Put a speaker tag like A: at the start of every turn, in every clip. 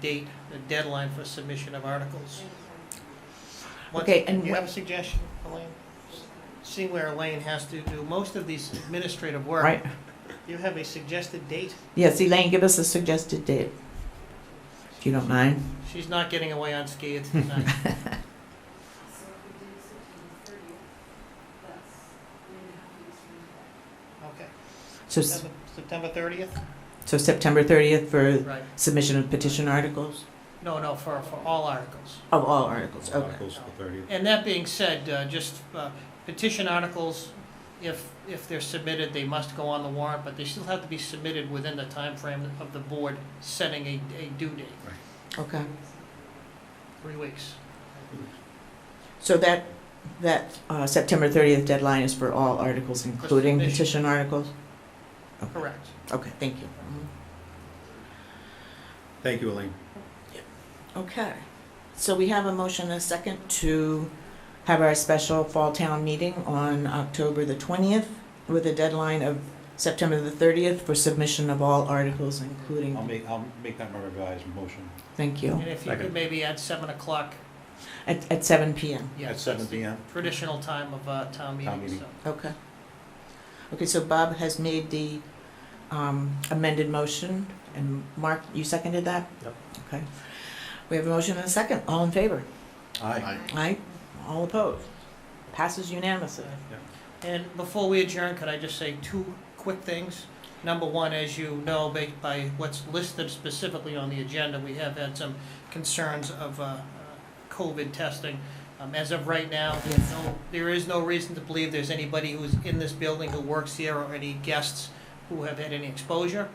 A: date, the deadline for submission of articles. Once-
B: Okay, and
A: Do you
B: wh-
A: have a suggestion, Elaine? See where Elaine has to do most of these administrative work.
B: Right.
A: Do you have a suggested date?
B: Yes, Elaine, give us a suggested date. If you don't mind.
A: She's not getting away unscathed tonight. Okay,
B: So, s-
A: September- September thirtieth?
B: so September 30th for
A: Right.
B: submission of petition articles?
A: No, no, for, for all articles.
B: Of all articles, okay.
C: Articles for thirtieth.
A: And that being said, uh, just uh, petition articles, if, if they're submitted, they must go on the warrant, but they still have to be submitted within the timeframe of the board setting a, a due date,
B: Okay.
A: three weeks.
B: So that, that uh, September 30th deadline is for all articles, including
A: submission.
B: petition articles?
A: Correct.
B: Okay, thank you. Mm-hmm.
C: Thank you, Elaine.
B: Okay. So we have a motion and a second to have our special fall town meeting on October the 20th with a deadline of September the 30th for submission of all articles, including,
C: I'll make, I'll make that my revised motion
B: thank you,
A: And if you could
C: Second.
A: maybe at seven o'clock,
B: at, at 7 PM.
A: yes.
C: at seven
A: that's the
C: P M.
A: Traditional time of uh, town
C: Town
A: meeting,
C: meeting.
A: so.
B: Okay. Okay, so Bob has made the um, amended motion, and Mark, you seconded that?
C: Yep.
B: Okay. We have a motion and a second. All in favor?
C: Aye.
B: Aye. All opposed? Passes unanimously.
A: And before we adjourn, could I just say two quick things? Number one, as you know, ba- by what's listed specifically on the agenda, we have had some concerns of uh, uh, COVID testing. Um, As of right now, there's no- there is no reason to believe there's anybody who's in this building who works here or any guests who have had any exposure.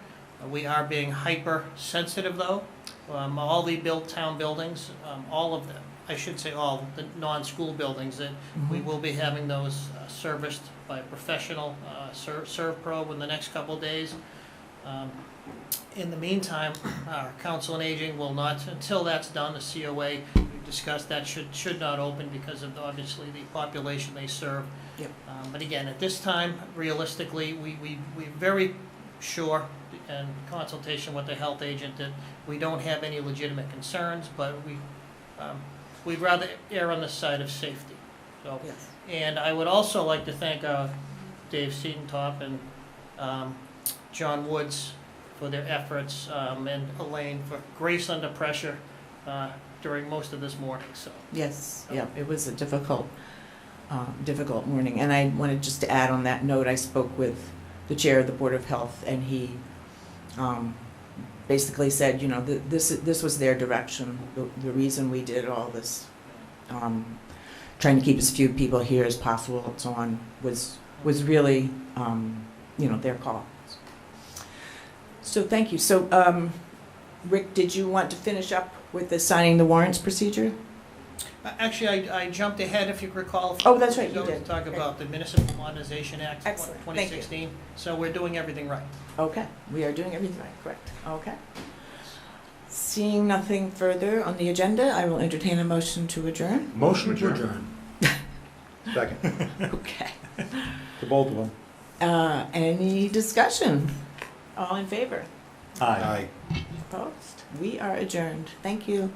A: Uh, We are being hypersensitive, though. Um, All the built town buildings, um, all of them, I should say all, the non-school buildings that we will be having those uh, serviced by a professional uh, ser- ServPro in the next couple of days. Um, In the meantime, our Council on Aging will not, until that's done, the COA, we discussed that should, should not open because of obviously the population they serve.
B: Yep.
A: Um, But again, at this time, realistically, we, we, we're very sure in consultation with the health agent that we don't have any legitimate concerns, but we, um, we'd rather err on the side of safety. So
B: Yes.
A: and I would also like to thank uh, Dave Seaton-top and um, John Woods for their efforts, um, and Elaine for grace under pressure uh, during most of this morning, so.
B: Yes, yeah, it was a difficult, um, difficult morning. And I wanted just to add on that note, I spoke with the chair of the Board of Health, and he um, basically said, you know, th- this, this was their direction, the the reason we did all this, um, trying to keep as few people here as possible and so on, was, was really, um, you know, their call. So thank you. So, um, Rick, did you want to finish up with the signing the warrants procedure?
A: Uh, Actually, I I jumped ahead, if you recall.
B: Oh, that's right, you
A: to
B: did.
A: Talk
B: Right.
A: about the Municipal Modernization Act of
B: Excellent, thank you.
A: 2016, so we're doing everything right.
B: Okay, we are doing everything right, correct, okay. Seeing nothing further on the agenda, I will entertain a motion to adjourn.
C: Motion to adjourn. Second.
B: Okay.
C: To both of them.
B: Uh, any discussion? All in favor?
C: Aye.
B: Opposed? We are adjourned, thank you.